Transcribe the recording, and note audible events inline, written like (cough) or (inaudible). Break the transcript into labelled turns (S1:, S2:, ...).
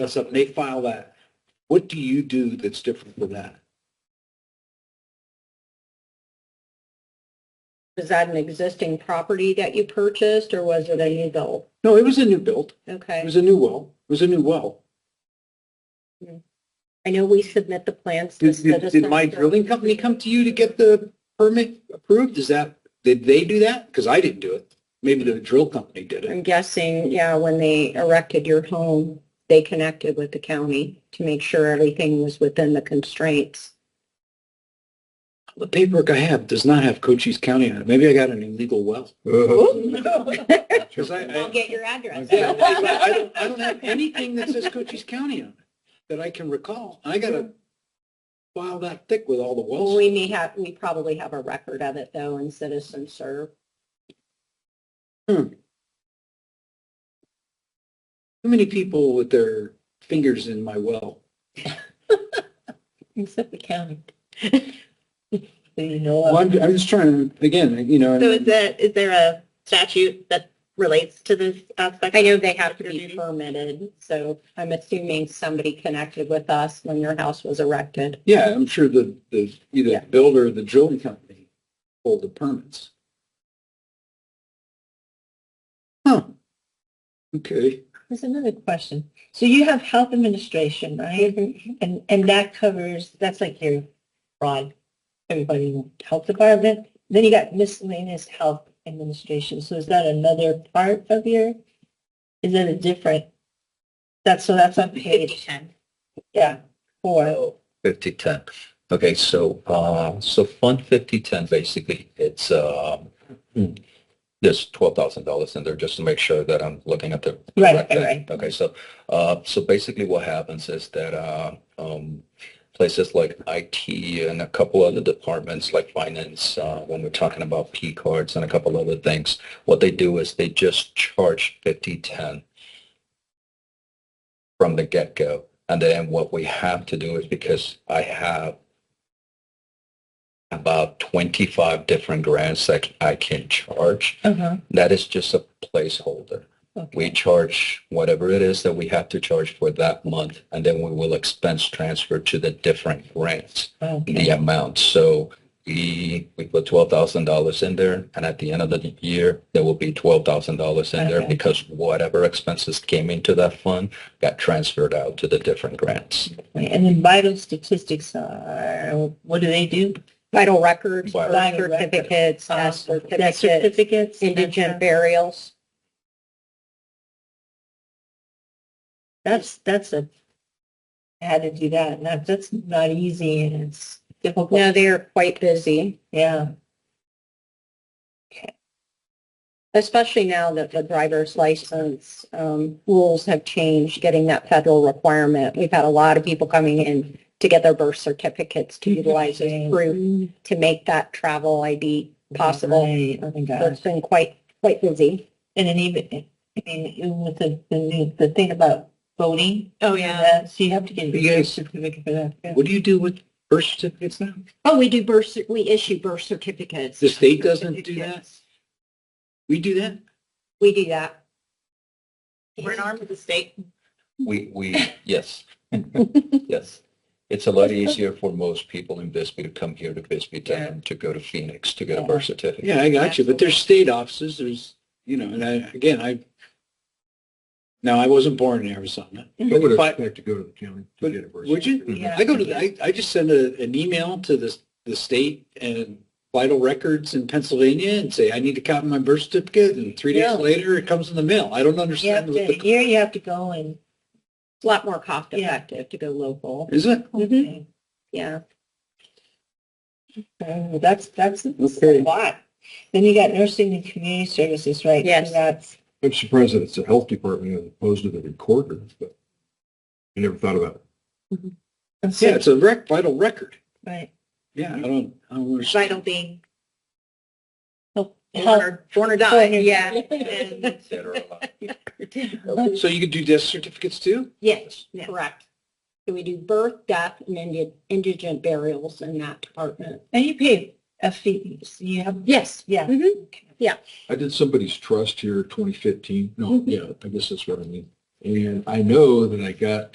S1: us up and they file that. What do you do that's different than that?
S2: Was that an existing property that you purchased or was it a new build?
S1: No, it was a new build. It
S2: Okay.
S1: was a new well. It was a new well.
S2: I know we submit the plans to
S1: Did, did-
S2: citizens.
S1: did my drilling company come to you to get the permit approved? Is that, did they do that? Because I didn't do it. Maybe the drill company did it.
S2: I'm guessing, yeah, when they erected your home, they connected with the county to make sure everything was within the constraints.
S1: The paperwork I have does not have Cochise County on it. Maybe I got an illegal well. Oh,
S2: Oh. (laughs)
S1: Because I- I-
S2: get your address.
S1: Yeah, I I don't, I don't have anything that says Cochise County on it that I can recall. I gotta file that thick with all the
S2: Well,
S1: wells.
S2: We may have, we probably have a record of it though in citizen serve.
S1: Too many people with their fingers in my well.
S2: Except the (laughs) county. You know.
S1: Well, I'm, I'm just trying, to again, you know,
S3: So is that, is there a statute that relates to this aspect?
S2: I know they have to
S3: Your
S2: be
S3: duty.
S2: permitted, so I'm assuming somebody connected with us when your house was erected.
S1: yeah, I'm sure the, the, either
S2: Yeah.
S1: the builder or the drilling company pulled the permits. Huh. Okay.
S3: There's another question. So you have health administration, right?
S2: Mm-hmm.
S3: And, and that covers, that's like your broad, everybody in the health department. Then you got miscellaneous health administration. So is that another part of your, is that a different? That's, so that's on page. Yeah, four.
S4: Fifty ten. Okay, so, uh, so Fund fifty ten, basically, it's, um, (clears throat) there's twelve thousand dollars in there just to make sure that I'm looking at the.
S3: Right,
S4: correct
S3: right,
S4: thing.
S3: right.
S4: Okay, so, uh, so basically what happens is that, uh, um, places like IT and a couple other departments like finance, uh, when we're talking about P cards and a couple other things, what they do is they just charge fifty ten from the get-go. And then what we have to do is because I have about 25 different grants that I can charge,
S3: Uh-huh.
S4: that is just a placeholder. We charge whatever it is that we have to charge for that month, and then we will expense transfer to the different grants
S3: Oh,
S4: the amount. So we, we put twelve thousand dollars in there, and at the end of the year, there will be twelve thousand dollars in there
S3: Okay.
S4: because whatever expenses came into that fund got transferred out to the different grants.
S3: And then vital statistics are, what do they do?
S2: Vital records,
S4: Vital
S2: birth
S3: records.
S2: certificates, death
S3: Death
S2: certificates,
S3: certificates. uh-huh.
S2: indigent burials.
S3: That's, that's a, I had to do that. And that, that's not easy and it's difficult.
S2: No, they are quite busy,
S3: Yeah.
S2: especially now that the driver's license um, rules have changed, getting that federal requirement. We've had a lot of people coming in to get their birth certificates to utilize as
S3: Mm-hmm.
S2: proof to make that travel ID possible.
S3: Right. Oh my
S2: So
S3: gosh.
S2: It's been quite, quite busy.
S3: And then even, I mean, even with the, the new, the thing about voting.
S2: Oh,
S3: and that, So you have to get
S1: You
S3: a
S1: guys-
S3: certificate for that. yeah.
S1: What do you do with birth certificates now?
S2: Oh, we do birth, cer- we issue birth certificates.
S1: The state doesn't do that? We do that?
S2: We do that.
S3: We're an arm
S2: of the state.
S4: We, we, yes, yes. It's a lot easier for most people in Bisbee to come here to Bisbee than to go to Phoenix to get a birth certificate.
S1: Yeah, I got you, but there's state offices, there's, you know, and I, again, I, no, I wasn't born in Arizona.
S4: I would
S1: But-
S4: expect to go to the county
S1: But would you?
S3: Yeah.
S1: I go to, the- I, I just send a, an email to the, the state and vital records in Pennsylvania and say, I need a copy of my birth certificate, and three
S3: Yeah.
S1: days later, it comes in the mail. I don't
S3: You have
S1: understand what
S3: to,
S1: the,
S3: here you have to go and.
S2: It's a lot more cost effective to go local.
S1: is it?
S2: Mhm. Yeah.
S3: Oh, That's, that's that's
S1: Okay.
S3: a lot. Then you got nursing and community services, right? So
S2: Yes.
S3: That's,
S5: I'm surprised that it's the health department as opposed to the recorder, but I never thought about it.
S3: that's
S1: Yeah,
S3: it,
S1: it's a rec, vital record.
S3: Right.
S1: Yeah, I don't, I don't understand.
S2: Vital being
S3: Oh, Health-
S2: born or
S3: die, (laughs)
S2: Yeah.
S3: yeah.
S1: So you could do death certificates too?
S2: Yes, correct. So we do birth, death, and indi- indigent burials in that department.
S3: And you pay a fee, so you have, Mm-hmm.
S2: Yes.
S3: yeah.
S2: Mhm.
S5: I did somebody's trust here 2015. No, yeah, I guess that's what I mean. And I know that I got